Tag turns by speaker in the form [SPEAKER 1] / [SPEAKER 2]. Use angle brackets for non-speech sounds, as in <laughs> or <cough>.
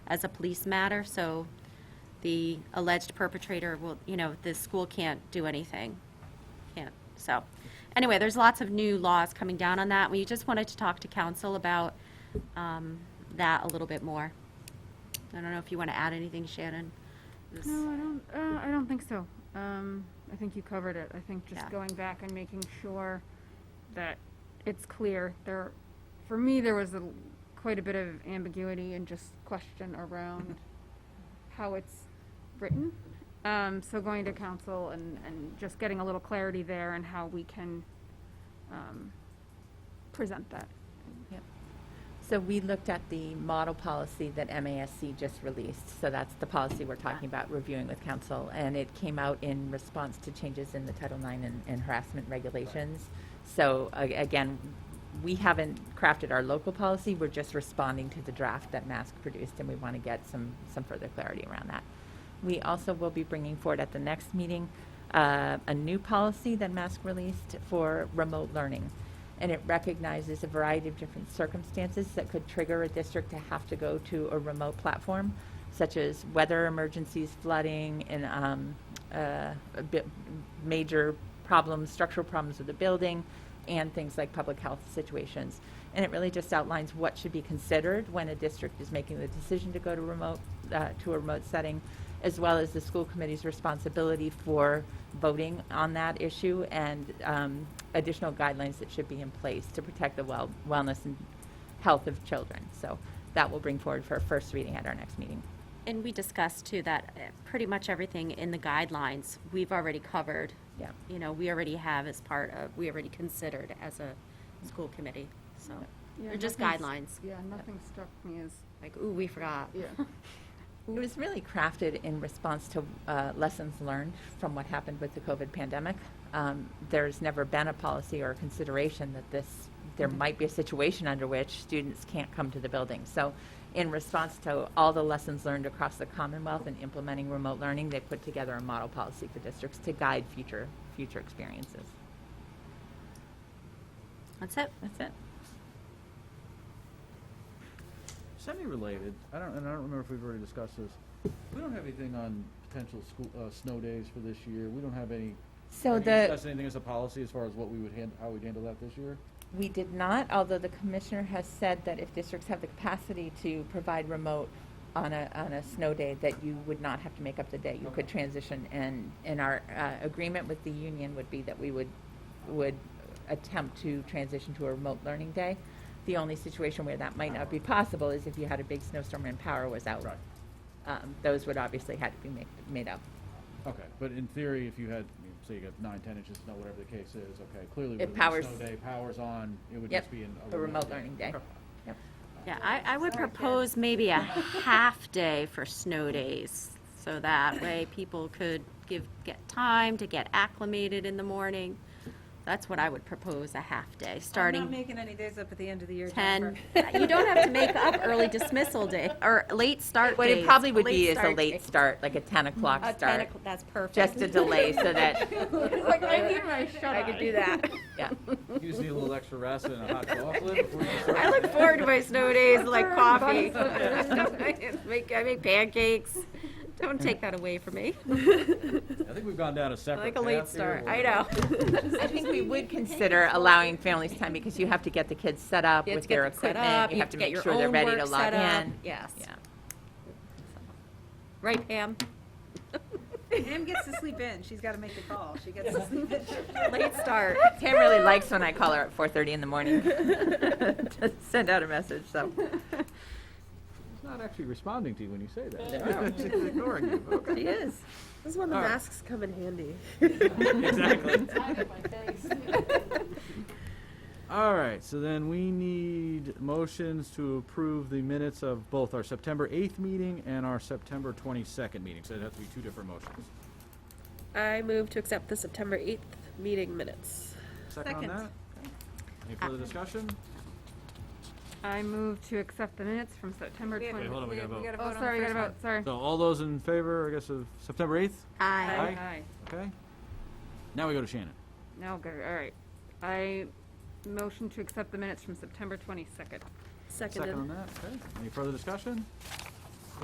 [SPEAKER 1] as a police matter, so the alleged perpetrator will, you know, the school can't do anything. Can't, so. Anyway, there's lots of new laws coming down on that. We just wanted to talk to council about um, that a little bit more. I don't know if you want to add anything, Shannon? This-
[SPEAKER 2] No, I don't, uh, I don't think so. Um, I think you covered it. I think
[SPEAKER 1] Yeah.
[SPEAKER 2] just going back and making sure that it's clear. There, for me, there was a, l- quite a bit of ambiguity and just question around how it's written. Um, so going to council and, and just getting a little clarity there and how we can, um, present that.
[SPEAKER 3] So we looked at the model policy that MASC just released. So that's the policy we're talking about reviewing with council. And it came out in response to changes in the Title IX and, and harassment regulations. So a- again, we haven't crafted our local policy. We're just responding to the draft that MASC produced and we want to get some, some further clarity around that. We also will be bringing forward at the next meeting uh, a new policy that MASC released for remote learning. And it recognizes a variety of different circumstances that could trigger a district to have to go to a remote platform, such as weather emergencies, flooding, and um, uh, a bit major problems, structural problems with the building, and things like public health situations. And it really just outlines what should be considered when a district is making the decision to go to remote, uh, to a remote setting, as well as the school committee's responsibility for voting on that issue and um, additional guidelines that should be in place to protect the well, wellness and health of children. So that we'll bring forward for a first reading at our next meeting.
[SPEAKER 1] And we discussed too that uh, pretty much everything in the guidelines, we've already covered.
[SPEAKER 3] Yeah.
[SPEAKER 1] You know, we already have as part of, we already considered as a school committee, so.
[SPEAKER 2] Yeah,
[SPEAKER 1] They're just
[SPEAKER 2] nothing's-
[SPEAKER 1] guidelines,
[SPEAKER 2] Yeah, nothing struck me as,
[SPEAKER 1] like, ooh, we forgot.
[SPEAKER 2] <laughs> yeah.
[SPEAKER 3] It was really crafted in response to uh, lessons learned from what happened with the COVID pandemic. Um, there's never been a policy or consideration that this there might be a situation under which students can't come to the building. So, in response to all the lessons learned across the Commonwealth and implementing remote learning, they put together a model policy for districts to guide future future experiences.
[SPEAKER 1] That's it.
[SPEAKER 3] That's it.
[SPEAKER 4] Semi-related, I don't, and I don't remember if we've already discussed this, we don't have anything on potential school, uh, snow days for this year, we don't have any.
[SPEAKER 3] So
[SPEAKER 4] have you
[SPEAKER 3] the
[SPEAKER 4] discussed anything as a policy as far as what we would hand, how we'd handle that this year?
[SPEAKER 3] We did not, although the commissioner has said that if districts have the capacity to provide remote on a, on a snow day, that you would not have to make up the day. You could
[SPEAKER 4] Okay.
[SPEAKER 3] transition, and, and our uh, agreement with the union would be that we would, would attempt to transition to a remote learning day. The only situation where that might not be possible is if you had a big snowstorm and power was out.
[SPEAKER 4] Right.
[SPEAKER 3] Um, Those would obviously had to be made, made up.
[SPEAKER 4] Okay, but in theory, if you had, I mean, say you got nine, ten inches of snow, whatever the case is, okay, clearly
[SPEAKER 3] It
[SPEAKER 4] with a
[SPEAKER 3] powers-
[SPEAKER 4] snow day, powers on, it would
[SPEAKER 3] Yep,
[SPEAKER 4] just be in
[SPEAKER 3] a remote learning day.
[SPEAKER 4] Okay.
[SPEAKER 3] Yep.
[SPEAKER 1] Yeah, I, I would propose maybe a half day for snow days. So that way people could give, get time to get acclimated in the morning. That's what I would propose, a half day, starting.
[SPEAKER 5] I'm not making any days up at the end of the year,
[SPEAKER 1] 10, <laughs>
[SPEAKER 5] Jennifer.
[SPEAKER 1] you don't have to make up early dismissal day, or late start
[SPEAKER 3] What it
[SPEAKER 1] days.
[SPEAKER 3] probably would be is a
[SPEAKER 1] start
[SPEAKER 3] late
[SPEAKER 1] date.
[SPEAKER 3] start, like a 10 o'clock
[SPEAKER 1] A 10
[SPEAKER 3] start,
[SPEAKER 1] o'clock, That's perfect.
[SPEAKER 3] just to
[SPEAKER 1] <laughs>
[SPEAKER 3] delay so that,
[SPEAKER 1] I could do that.
[SPEAKER 3] yeah.
[SPEAKER 4] You just need a little extra rest and
[SPEAKER 1] <laughs>
[SPEAKER 4] a hot chocolate before you start.
[SPEAKER 1] I look forward to my
[SPEAKER 4] <laughs>
[SPEAKER 1] snow days, like coffee. <laughs>
[SPEAKER 2] Buns
[SPEAKER 1] I make, I make pancakes. Don't take that away from
[SPEAKER 3] <laughs>
[SPEAKER 1] me.
[SPEAKER 4] I think we've gone down a
[SPEAKER 1] I
[SPEAKER 4] separate
[SPEAKER 1] like a late
[SPEAKER 4] path here
[SPEAKER 1] start,
[SPEAKER 4] where-
[SPEAKER 1] I know.
[SPEAKER 4] <laughs>
[SPEAKER 3] I think we would consider allowing families time because you have to get the kids set up
[SPEAKER 1] You have
[SPEAKER 3] with
[SPEAKER 1] to get
[SPEAKER 3] their
[SPEAKER 1] them set
[SPEAKER 3] equipment.
[SPEAKER 1] up,
[SPEAKER 3] You have to
[SPEAKER 1] get
[SPEAKER 3] make
[SPEAKER 1] your
[SPEAKER 3] sure they're
[SPEAKER 1] own
[SPEAKER 3] ready to
[SPEAKER 1] work
[SPEAKER 3] log
[SPEAKER 1] set up.
[SPEAKER 3] in.
[SPEAKER 1] Yes.
[SPEAKER 3] Yeah.
[SPEAKER 1] Right, Pam?
[SPEAKER 5] Pam gets to sleep in. She's got to make the call. She gets to sleep in.
[SPEAKER 1] Late start.
[SPEAKER 3] Tam really likes when I call her at 4:30 in
[SPEAKER 1] <laughs>
[SPEAKER 3] the morning <laughs> to send out a message, so.
[SPEAKER 4] It's not actually responding to you when you say <laughs>
[SPEAKER 3] No.
[SPEAKER 4] that. It's ignoring you,
[SPEAKER 3] <laughs>
[SPEAKER 4] okay.
[SPEAKER 3] She is.
[SPEAKER 5] This is when
[SPEAKER 4] the All right.
[SPEAKER 5] masks come in handy.
[SPEAKER 4] <laughs> Exactly. All right, so then we need motions to approve the minutes of both our September 8th meeting and our September 22nd meeting. So it'd have to be two different motions.
[SPEAKER 6] I move to accept the September 8th meeting minutes.
[SPEAKER 4] Second on
[SPEAKER 5] Second.
[SPEAKER 4] that? Any further discussion?
[SPEAKER 2] I move to accept the minutes from September
[SPEAKER 5] We
[SPEAKER 2] 20th.
[SPEAKER 5] have-
[SPEAKER 4] Wait, hold on, we gotta vote.
[SPEAKER 5] gotta
[SPEAKER 2] Oh,
[SPEAKER 5] vote on
[SPEAKER 2] sorry,
[SPEAKER 5] the
[SPEAKER 2] we got
[SPEAKER 5] first
[SPEAKER 2] about, sorry.
[SPEAKER 4] So all those in favor, I guess, of September 8th?
[SPEAKER 1] Aye.
[SPEAKER 4] Aye. Okay. Now we go to Shannon.
[SPEAKER 2] No, good, all right. I motion to accept the minutes from September 22nd.
[SPEAKER 4] Second on
[SPEAKER 6] Seconded.
[SPEAKER 4] that, okay. Any further discussion?